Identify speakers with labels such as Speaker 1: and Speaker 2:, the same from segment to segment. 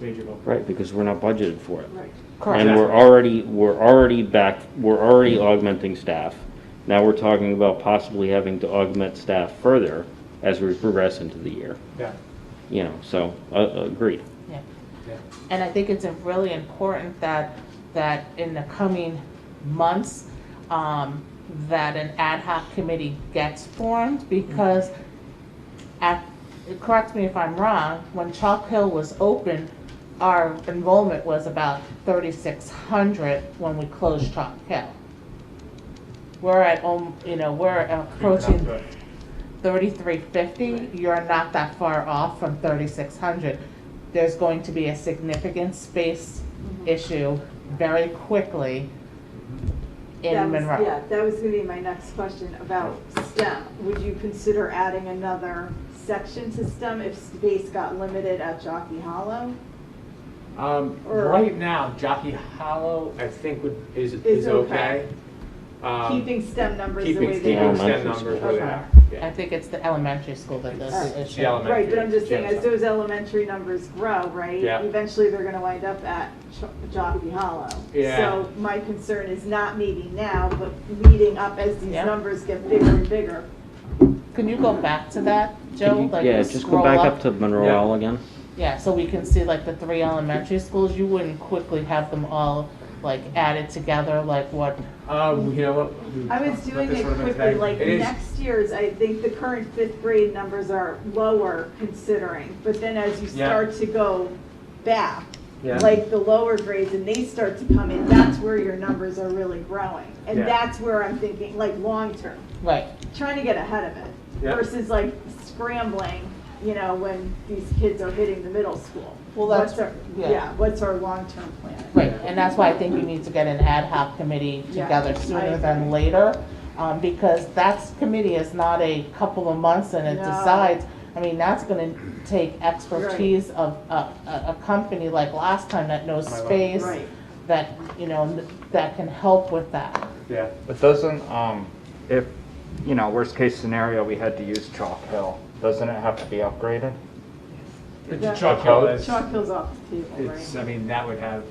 Speaker 1: major bump.
Speaker 2: Right, because we're not budgeted for it.
Speaker 3: Right.
Speaker 2: And we're already, we're already back, we're already augmenting staff. Now we're talking about possibly having to augment staff further as we progress into the year,
Speaker 1: Yeah,
Speaker 2: you know, so, uh, agreed.
Speaker 3: Yeah.
Speaker 1: yeah.
Speaker 3: And I think it's a really important that, that in the coming months, um, that an ad hoc committee gets formed because at, correct me if I'm wrong, when Chalk Hill was open, our enrollment was about thirty-six hundred when we closed Chalk Hill. We're at, um, you know, we're approaching
Speaker 1: Right.
Speaker 3: thirty-three fifty, you're not that far off from thirty-six hundred. There's going to be a significant space
Speaker 4: Mm-hmm.
Speaker 3: issue very quickly
Speaker 4: That
Speaker 3: in
Speaker 4: was- Yeah,
Speaker 3: Monroe.
Speaker 4: that was gonna be my next question about STEM. Would you consider adding another section to STEM if space got limited at Jockey Hollow?
Speaker 1: Um,
Speaker 4: Or-
Speaker 1: right now, Jockey Hollow, I think would, is,
Speaker 4: Is
Speaker 1: is
Speaker 4: okay.
Speaker 1: okay. Um,
Speaker 4: Keeping STEM numbers the way
Speaker 1: Keeping,
Speaker 4: they
Speaker 2: STEM
Speaker 4: are?
Speaker 1: keeping
Speaker 2: Elementary
Speaker 1: STEM numbers
Speaker 2: school.
Speaker 1: where they are.
Speaker 3: I
Speaker 1: Yeah.
Speaker 3: think it's the elementary school that does
Speaker 4: It's
Speaker 3: the
Speaker 4: the
Speaker 3: issue.
Speaker 1: element-
Speaker 4: Right, but I'm just saying,
Speaker 1: elementary,
Speaker 4: as those elementary numbers grow, right?
Speaker 1: Yeah.
Speaker 4: Eventually, they're gonna wind up at Ch- Jockey Hollow.
Speaker 1: Yeah.
Speaker 4: So my concern is not maybe now, but leading up as these
Speaker 3: Yeah.
Speaker 4: numbers get bigger and bigger.
Speaker 3: Can you go back to that, Joe? Like,
Speaker 2: Yeah, just go
Speaker 3: scroll
Speaker 2: back up to Monroe
Speaker 1: Yeah.
Speaker 2: L again.
Speaker 3: Yeah, so we can see like the three elementary schools, you wouldn't quickly have them all like added together like what,
Speaker 1: Um, you know what? we
Speaker 4: I was
Speaker 1: talked about
Speaker 4: doing
Speaker 1: this
Speaker 4: it
Speaker 1: a little bit
Speaker 4: quickly,
Speaker 1: today.
Speaker 4: like
Speaker 1: It is-
Speaker 4: next year's, I think the current fifth grade numbers are lower considering, but then as you
Speaker 1: Yeah.
Speaker 4: start to go back,
Speaker 1: Yeah.
Speaker 4: like the lower grades and they start to come in, that's where your numbers are really growing. And
Speaker 1: Yeah.
Speaker 4: that's where I'm thinking, like, long-term,
Speaker 3: right.
Speaker 4: trying to get ahead of it
Speaker 1: Yeah.
Speaker 4: versus like scrambling, you know, when these kids are hitting the middle school.
Speaker 3: Well, that's-
Speaker 4: What's our-
Speaker 3: yeah.
Speaker 4: Yeah, what's our long-term plan?
Speaker 3: Right, and that's why I think we need to get an ad hoc committee
Speaker 4: Yeah,
Speaker 3: together
Speaker 4: I
Speaker 3: sooner
Speaker 4: agree.
Speaker 3: than later, um, because that's, committee is not a couple of months and it
Speaker 4: No.
Speaker 3: decides. I mean, that's gonna take expertise of a, a, a company like last time that knows
Speaker 1: My love.
Speaker 3: space,
Speaker 4: Right.
Speaker 3: that, you know, that can help with that.
Speaker 1: Yeah.
Speaker 5: But doesn't, um, if, you know, worst case scenario, we had to use Chalk Hill, doesn't it have to be upgraded?
Speaker 4: Yeah.
Speaker 1: But Chalk Hill is,
Speaker 4: Chalk Hill's off the table,
Speaker 1: it's,
Speaker 4: right?
Speaker 1: I mean, that would have,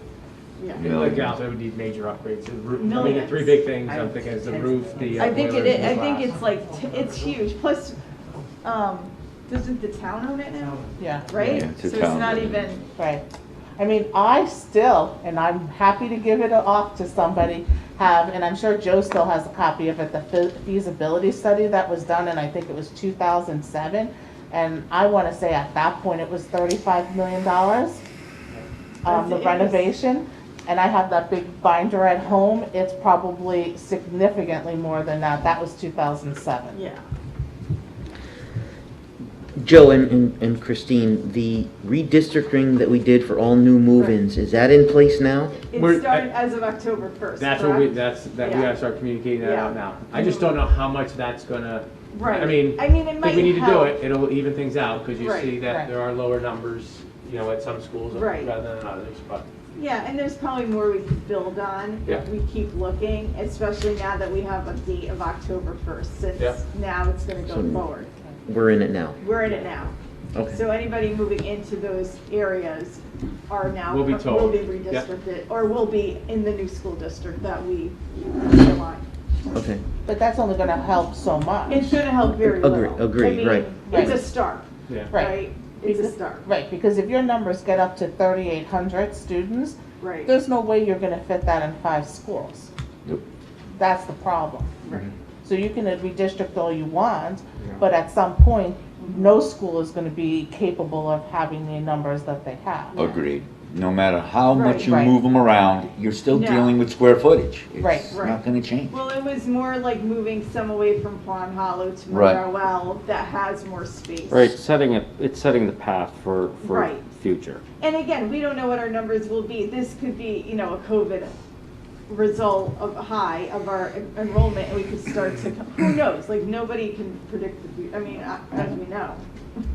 Speaker 4: Yeah.
Speaker 1: like, yeah, that would need major upgrades. The roof, I mean, the
Speaker 4: Millions.
Speaker 1: three big things I'm thinking is the roof, the uh,
Speaker 4: I think it
Speaker 1: boilers,
Speaker 4: is,
Speaker 1: the
Speaker 4: I think
Speaker 1: glass.
Speaker 4: it's like, t- it's huge, plus, um, doesn't the town own it now,
Speaker 3: Yeah,
Speaker 4: right?
Speaker 6: Yeah, it's a
Speaker 4: So it's
Speaker 6: town.
Speaker 4: not even,
Speaker 3: right. I mean, I still, and I'm happy to give it off to somebody, have, and I'm sure Joe still has a copy of it, the fe- feasibility study that was done, and I think it was two thousand seven. And I wanna say at that point, it was thirty-five million dollars, um, the
Speaker 4: That's- it is.
Speaker 3: renovation. And I have that big binder at home, it's probably significantly more than that, that was two thousand seven.
Speaker 4: yeah,
Speaker 6: Joe and- and and Christine, the redistricting that we did for all new move-ins, is that in place now?
Speaker 4: it
Speaker 1: We're-
Speaker 4: started as of October first,
Speaker 1: That's what we,
Speaker 4: correct?
Speaker 1: that's, that we
Speaker 4: Yeah.
Speaker 1: gotta start communicating that out
Speaker 4: Yeah.
Speaker 1: now. I just don't know how much that's gonna,
Speaker 4: Right.
Speaker 1: I mean,
Speaker 4: I mean, it
Speaker 1: I
Speaker 4: might
Speaker 1: think we need to do
Speaker 4: help.
Speaker 1: it, it'll even things out, because you
Speaker 4: Right,
Speaker 1: see
Speaker 3: right.
Speaker 1: that there are lower numbers, you know, at some schools rather
Speaker 4: Right.
Speaker 1: than others, but.
Speaker 4: Yeah, and there's probably more we could build on
Speaker 1: Yeah.
Speaker 4: if we keep looking, especially now that we have a date of October first,
Speaker 1: Yeah.
Speaker 4: since now it's gonna go
Speaker 6: So-
Speaker 4: forward.
Speaker 6: We're in it now.
Speaker 4: We're in it now.
Speaker 6: Okay.
Speaker 4: So anybody moving into those areas are now.
Speaker 1: Will be told.
Speaker 4: Will be
Speaker 1: Yep.
Speaker 4: redistricted, or will be in the new school district that we align.
Speaker 6: Okay.
Speaker 3: But that's only gonna help so much.
Speaker 4: It's gonna help very
Speaker 6: Agree-
Speaker 4: little.
Speaker 6: agree,
Speaker 4: I mean,
Speaker 6: right.
Speaker 4: It's a start,
Speaker 1: Yeah.
Speaker 3: Right.
Speaker 4: right? It's a start,
Speaker 3: Right, because if your numbers get up to thirty-eight hundred students,
Speaker 4: right?
Speaker 3: there's no way you're gonna fit that in five schools.
Speaker 6: Yep.
Speaker 3: That's the problem.
Speaker 4: Right.
Speaker 3: So you can redistrict all you want, but at some point, no school is gonna be capable of having the numbers that they have.
Speaker 7: Agreed. No matter how
Speaker 4: Right,
Speaker 7: much you
Speaker 3: right.
Speaker 7: move them around, you're still
Speaker 4: No.
Speaker 7: dealing with square footage.
Speaker 3: Right,
Speaker 7: It's
Speaker 4: right.
Speaker 7: not gonna change.
Speaker 4: Well, it was more like moving some away from Pond Hollow to
Speaker 7: Right.
Speaker 4: Morowell that has more space.
Speaker 2: Right, it's setting a, it's setting the path for, for
Speaker 4: Right.
Speaker 2: future.
Speaker 4: And again, we don't know what our numbers will be. This could be, you know, a COVID result of high of our en- enrollment, and we could start to, who knows? Like, nobody can predict the, fu- I mean, uh, as we know,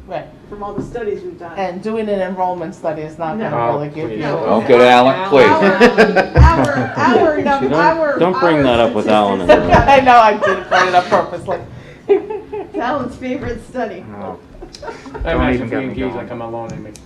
Speaker 3: Right,
Speaker 4: from all the studies we've done.
Speaker 3: and doing an enrollment study is not
Speaker 4: No.
Speaker 3: gonna really give you.
Speaker 1: No.
Speaker 7: Don't go to Alan,
Speaker 4: Our, um,
Speaker 7: please.
Speaker 4: our, our
Speaker 2: Don't-
Speaker 4: num- our.
Speaker 2: don't bring
Speaker 4: our
Speaker 2: that up with Alan and
Speaker 4: statistics-
Speaker 3: I know, I did bring it up purposely.
Speaker 4: Alan's favorite study.
Speaker 5: No.
Speaker 1: I imagine
Speaker 5: even get me
Speaker 1: being engaged,
Speaker 5: going.
Speaker 1: like I'm alone, it makes